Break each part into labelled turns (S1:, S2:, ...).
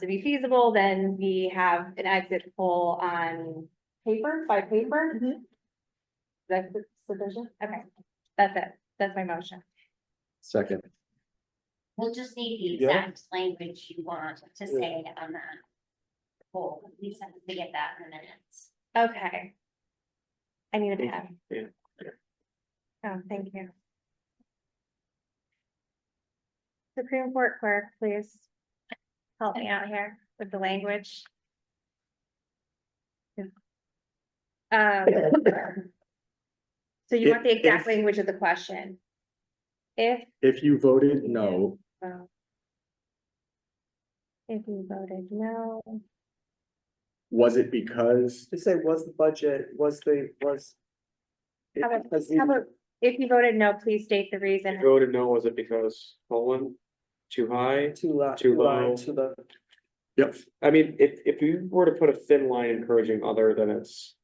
S1: to be feasible, then we have an exit poll on paper, by paper.
S2: Mhm.
S1: That's sufficient, okay, that's it, that's my motion.
S3: Second,
S4: We'll just need the
S5: Yeah.
S4: exact language you want to say on that. Poll, we just have to get that in the minutes.
S1: Okay. I need a
S5: Thank
S1: pen.
S5: you.
S1: Oh, thank you. Supreme Court clerk, please. Help me out here with the language. Um, So you want the
S5: If-
S1: exact
S5: if-
S1: language of the question? If,
S5: If you voted no,
S1: oh. If you voted no,
S5: was it because,
S2: Just say, was the budget, was the, was. it
S1: How about-
S2: because
S1: how
S2: the-
S1: about, if you voted no, please state the reason.
S6: You voted no, was it because colon too high?
S2: Too low.
S6: Too low.
S2: To the,
S5: yep,
S6: I mean, if if you were to put a thin line encouraging other, then it's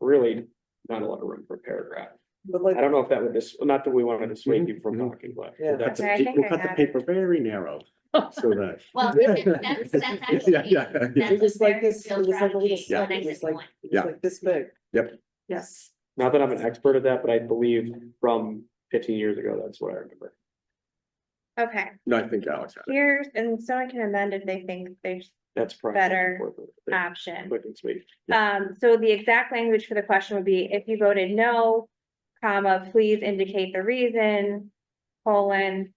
S6: really not a lot of room for paragraph.
S2: but
S6: I
S2: like,
S6: don't know if that would dis, not that we wanted to dissuade you from
S5: Mhm, mhm.
S6: talking, but
S2: Mm-hmm. Yeah.
S6: that's,
S5: that's,
S1: Okay, I think
S5: we'll
S1: I
S5: cut the
S1: got it.
S5: paper very narrow, so that.
S4: Well, that's, that's actually.
S5: Yeah, yeah, yeah.
S2: it was like this, it
S4: Still
S2: was like a
S4: strategy,
S2: little,
S4: so
S2: slit, it
S4: nice and
S2: was like,
S4: one.
S2: it
S5: Yeah.
S2: was like this big.
S5: Yep.
S2: Yes.
S6: not that I'm an expert at that, but I believe from fifteen years ago, that's what I remember.
S1: Okay,
S5: No, I think Alex had it.
S1: here's, and someone can amend if they think there's
S6: That's probably.
S1: Better, Ah.
S6: important.
S1: option.
S6: Quick and sweet.
S1: Um, so the exact language for the question would be, if you voted no, comma, please indicate the reason, colon,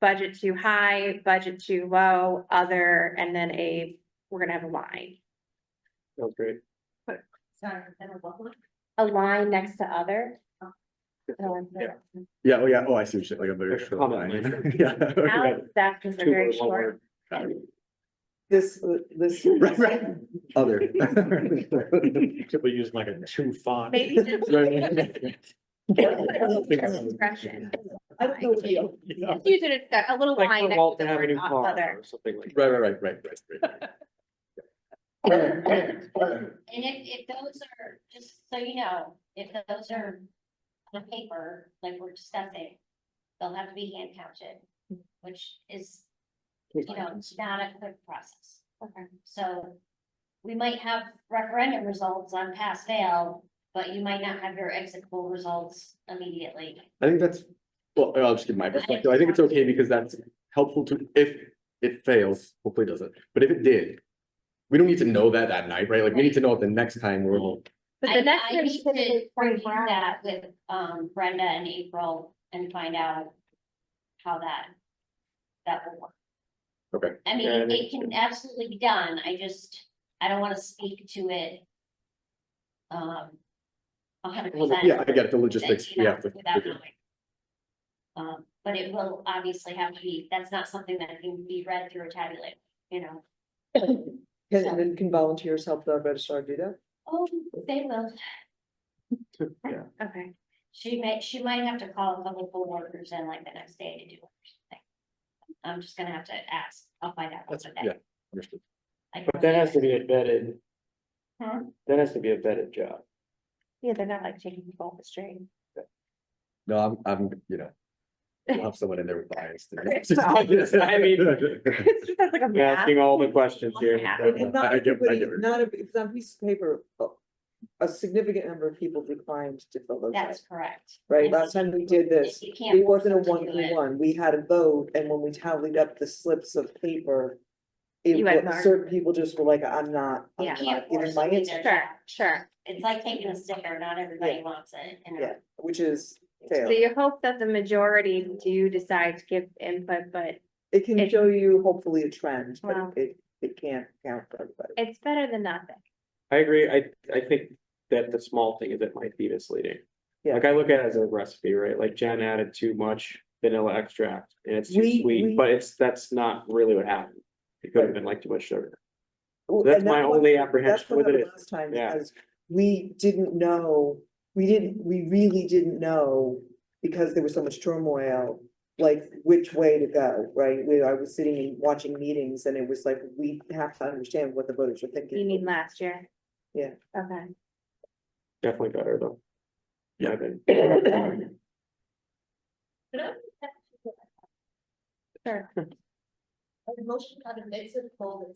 S1: budget too high, budget too low, other, and then a, we're gonna have a line.
S6: That was great.
S4: Sorry, then we'll go.
S1: A line next to other.
S6: Yeah.
S5: Yeah, oh, yeah, oh, I see, what you- like a very
S6: There's a
S5: short
S6: comment
S5: line.
S6: later.
S5: Yeah.
S1: Now, that's a
S6: Two or
S1: very
S6: one
S1: short.
S6: word. Got it.
S2: This, uh, this.
S5: Right, right, other.
S3: we use like a two font.
S1: Maybe just discretion.
S2: I don't know what you.
S1: Just Use it, as a a little
S6: Like
S1: line
S6: the
S1: next to
S6: Walton
S1: the word
S6: Avenue car
S1: other.
S6: or something like.
S5: Right, right, right, right, right, right.
S4: And if, if those are, just so you know, if those are on paper, like we're discussing, they'll have to be hand counted, which is, you know, it's not a quick process. So we might have referendum results on pass fail, but you might not have your exit poll results immediately.
S5: I think that's, well, I'll just give my perspective. I think it's okay because that's helpful to, if it fails, hopefully it doesn't, but if it did. We don't need to know that that night, right? Like, we need to know it the next time we're, all-
S1: But
S4: I-
S1: the next.
S4: I
S1: one
S4: need
S1: should
S4: to
S1: be
S4: review
S1: Frank Brown.
S4: that with um Brenda and April and find out how that, that will work.
S5: Okay.
S4: I mean,
S6: Yeah, I
S4: it- it
S6: think-
S4: can absolutely be done, I just, I don't wanna speak to it. Um. A hundred
S6: Well,
S4: percent.
S5: yeah, I get it, the logistics,
S4: you
S5: we
S4: know,
S5: have to.
S4: without knowing. Um, but it will obviously have to be, that's not something that can be read through a tabulator, you know,
S2: Can, and then can volunteers help the registrar do that?
S4: oh, they will.
S6: Yeah.
S1: Okay,
S4: She may, she might have to call a couple poll workers in like the next day to do it or something. I'm just gonna have to ask, I'll find out.
S5: That's,
S4: what
S5: yeah.
S4: that-
S5: understood.
S4: I can
S6: But that has to be a
S4: remember.
S6: vetted.
S4: Huh?
S6: That has to be a vetted job.
S1: yeah, they're not like taking people off the street.
S5: No, I'm, I'm, you know. I'll have someone in there with bias.
S6: I mean-
S1: It's just that's like a
S6: You're
S1: math.
S6: asking all the questions here.
S1: Yeah.
S2: And- and not
S5: I- I get- I
S2: everybody-
S5: get it.
S2: Not, every- it's on a piece of paper, a- a significant number of people declined to fill those out,
S4: That's correct.
S2: right?
S4: And
S2: Last time we did
S4: if
S2: this,
S4: you
S2: it
S4: can't
S2: wasn't a
S4: do
S2: one
S4: it,
S2: for one, we had a vote, and when we tallied up the slips of paper. It,
S1: You had
S2: wa-
S1: more.
S2: certain people just were like, I'm not, I'm
S1: Yeah.
S4: you Can't
S2: not giving
S4: force
S2: my
S4: them to do their
S2: answer,
S1: Sure,
S4: job.
S1: sure.
S4: It's like taking a sticker, not everybody wants it, you
S2: yeah,
S4: know.
S2: which is
S1: So
S2: fair.
S1: you hope that the majority do decide to give input, but
S2: It can
S1: it-
S2: show you hopefully a trend,
S1: Wow.
S2: but it, it can't count for everybody.
S1: it's better than nothing.
S6: I agree. I, I think that the small thing is it might be misleading.
S2: Yeah.
S6: Like I look at it as a recipe, right? Like Jen added too much vanilla extract and it's too
S2: We- we-
S6: sweet, but it's, that's not really what happened. It could have
S2: Right.
S6: been like too much sugar.
S2: Well,
S6: That's
S2: and
S6: my
S2: what-
S6: only
S2: That's
S6: apprehension
S2: what
S6: with it
S2: happened
S6: is,
S2: last time,
S6: yeah.
S2: because we didn't know, we didn't, we really didn't know, because there was so much turmoil, like which way to go, right? We, I was sitting and watching meetings and it was like, we have to understand what the voters are thinking.
S1: You mean last year?
S2: Yeah.
S1: Okay.
S6: definitely better though.
S5: Yeah.
S6: I've been-
S1: Sure.
S7: motion on the minutes of the poll that's